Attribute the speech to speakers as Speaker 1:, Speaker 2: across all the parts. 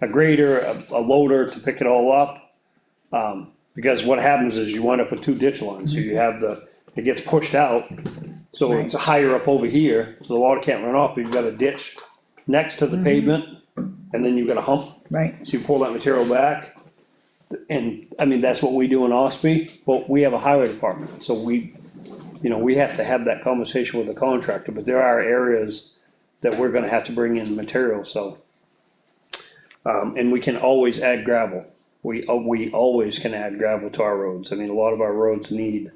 Speaker 1: a grader, a- a loader to pick it all up. Um, because what happens is you wind up with two ditch lines, so you have the, it gets pushed out. So it's higher up over here, so the water can't run off, but you've got a ditch next to the pavement, and then you've got a hump,
Speaker 2: right,
Speaker 1: so you pull that material back. And, I mean, that's what we do in Ospey, but we have a highway department, so we, you know, we have to have that conversation with the contractor, but there are areas that we're gonna have to bring in material, so. Um, and we can always add gravel, we, uh, we always can add gravel to our roads, I mean, a lot of our roads need.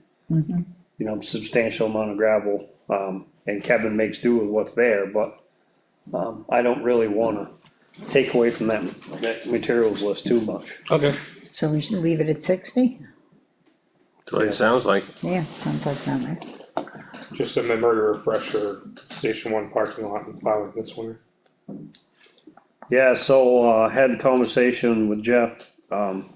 Speaker 1: You know, substantial amount of gravel, um, and Kevin makes do with what's there, but, um, I don't really wanna take away from that, that materials list too much.
Speaker 3: Okay.
Speaker 2: so we should leave it at sixty?
Speaker 3: That's what it sounds like.
Speaker 2: Yeah, sounds like that, right?
Speaker 4: Just a memory refresher, Station One parking lot and plowing this winter.
Speaker 1: Yeah, so, uh, had a conversation with Jeff, um.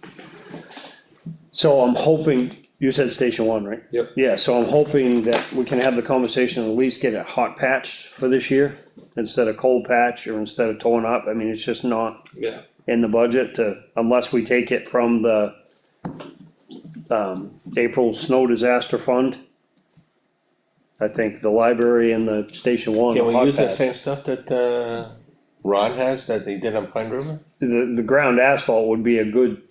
Speaker 1: So I'm hoping, you said station one, right?
Speaker 4: Yep.
Speaker 1: Yeah, so I'm hoping that we can have the conversation and at least get it hot patched for this year. Instead of cold patch or instead of torn up, I mean, it's just not
Speaker 4: Yeah.
Speaker 1: in the budget to, unless we take it from the. Um, April snow disaster fund. I think the library and the station one.
Speaker 3: Can we
Speaker 1: hot
Speaker 3: use that
Speaker 1: patch.
Speaker 3: same stuff that, uh, Ron has that they did on Pine River?
Speaker 1: The, the ground asphalt would be a good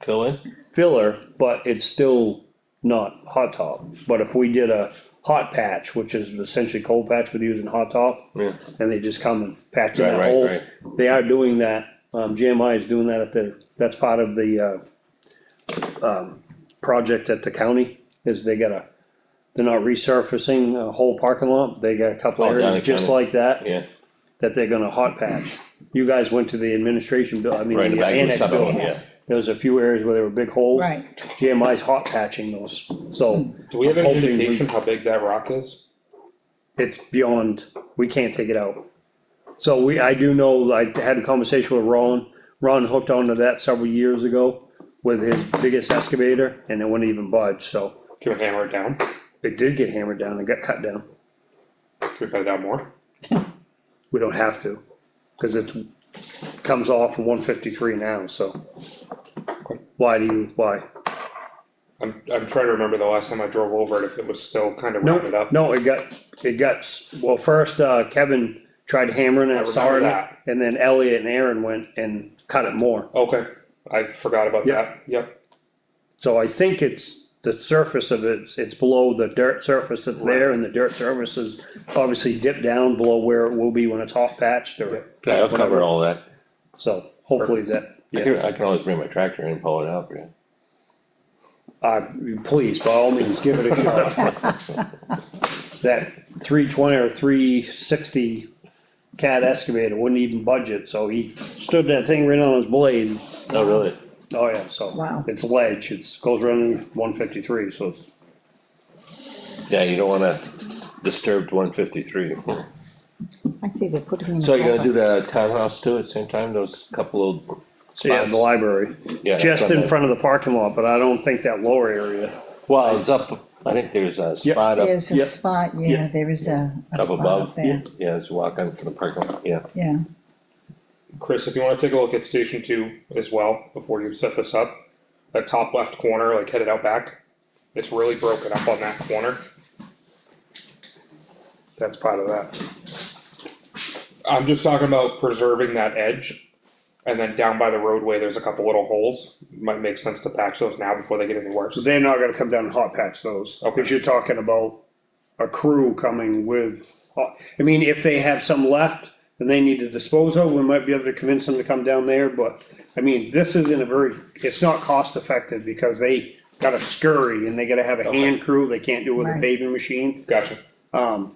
Speaker 3: Fill in?
Speaker 1: filler, but it's still not hot top. But if we did a hot patch, which is essentially cold patch with using hot top,
Speaker 3: Yeah.
Speaker 1: and they just come and patch in
Speaker 3: Right,
Speaker 1: that
Speaker 3: right,
Speaker 1: hole.
Speaker 3: right.
Speaker 1: They are doing that, um, GMI is doing that at the, that's part of the, uh, um, project at the county, is they gotta, they're not resurfacing a whole parking lot, they got a couple
Speaker 3: Oh, down
Speaker 1: areas
Speaker 3: the
Speaker 1: just
Speaker 3: county.
Speaker 1: like that,
Speaker 3: Yeah,
Speaker 1: that they're gonna hot patch. You guys went to the administration, bill. I mean,
Speaker 3: right, the
Speaker 1: the
Speaker 3: back of the
Speaker 1: annex
Speaker 3: southern
Speaker 1: bill,
Speaker 3: one, yeah.
Speaker 1: there was a few areas where there were big holes.
Speaker 2: Right.
Speaker 1: GMI's hot patching those, so
Speaker 4: Do we have
Speaker 1: I'm
Speaker 4: any
Speaker 1: hoping we-
Speaker 4: indication how big that rock is?
Speaker 1: it's beyond, we can't take it out. So we, I do know, I had a conversation with Ron, Ron hooked onto that several years ago with his biggest excavator, and it wouldn't even budge, so
Speaker 4: Can we hammer it down?
Speaker 1: it did get hammered down, it got cut down.
Speaker 4: Can we cut it down more?
Speaker 1: We don't have to, cause it comes off from one fifty-three now, so. Why do you, why?
Speaker 4: I'm, I'm trying to remember the last time I drove over it, if it was still kind of rounded
Speaker 1: No,
Speaker 4: up.
Speaker 1: no, it got, it got, s- well, first, uh, Kevin tried hammering it,
Speaker 4: I remember
Speaker 1: sawing it,
Speaker 4: that.
Speaker 1: and then Elliot and Aaron went and cut it more.
Speaker 4: Okay, I forgot about that, yep,
Speaker 1: So I think it's, the surface of it, it's below the dirt surface that's there, and the dirt surface is obviously dipped down below where it will be when it's hot patched or,
Speaker 3: Yeah, I'll cover all that.
Speaker 1: so hopefully that,
Speaker 3: I can, I can always bring my tractor in and pull it out, yeah.
Speaker 1: uh, please, by all means, give it a shot. That three twenty or three sixty cat excavator wouldn't even budget, so he stood that thing right on his blade,
Speaker 3: Oh, really?
Speaker 1: Oh, yeah, so.
Speaker 2: Wow.
Speaker 1: It's ledge, it's, goes around one fifty-three, so it's,
Speaker 3: Yeah, you don't wanna disturb one fifty-three.
Speaker 2: I see they put him in.
Speaker 3: So you're gonna
Speaker 2: cover.
Speaker 3: do the townhouse too at the same time, those couple of spots?
Speaker 1: yeah, the library.
Speaker 3: Yeah,
Speaker 1: Just in
Speaker 3: the-
Speaker 1: front of the parking lot, but I don't think that lower area.
Speaker 3: Well, it's up, I think there's a spot up,
Speaker 2: There's a
Speaker 1: Yep.
Speaker 2: spot, yeah,
Speaker 1: Yep.
Speaker 2: there is a, a
Speaker 3: up
Speaker 2: spot
Speaker 3: above,
Speaker 2: up there,
Speaker 3: yeah, it's walk on to the parking lot, yeah.
Speaker 2: yeah,
Speaker 4: Chris, if you wanna take a look at Station Two as well, before you set this up. That top left corner, like headed out back, it's really broken up on that corner.
Speaker 1: That's part of that.
Speaker 4: I'm just talking about preserving that edge. And then down by the roadway, there's a couple little holes. Might make sense to patch those now before they get any worse.
Speaker 1: They're not gonna come down and hot patch those,
Speaker 4: Okay.
Speaker 1: because you're talking about a crew coming with, hot- I mean, if they have some left and they need to dispose of, we might be able to convince them to come down there, but, I mean, this is in a very, it's not cost effective, because they gotta scurry and they gotta have a hand crew, they can't do it with a
Speaker 2: Right.
Speaker 1: paving machine.
Speaker 4: Gotcha.
Speaker 1: Um,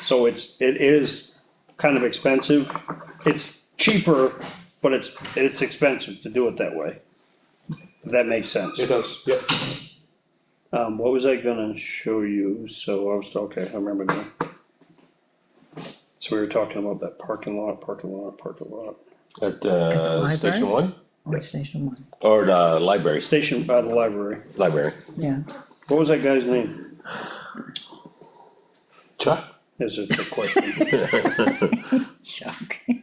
Speaker 1: so it's, it is kind of expensive, it's cheaper, but it's, it's expensive to do it that way. If that makes sense.
Speaker 4: It does, yep.
Speaker 1: Um, what was I gonna show you? So I was, okay, I remember now. So we were talking about that parking lot, parking lot, parking lot,
Speaker 3: At, uh,
Speaker 2: library?
Speaker 3: Station One,
Speaker 2: or Station One,
Speaker 3: or the library,
Speaker 1: station by the library.
Speaker 3: library.
Speaker 2: yeah.
Speaker 1: What was that guy's name?
Speaker 3: Chuck?
Speaker 1: Is a trick question.
Speaker 2: Shock.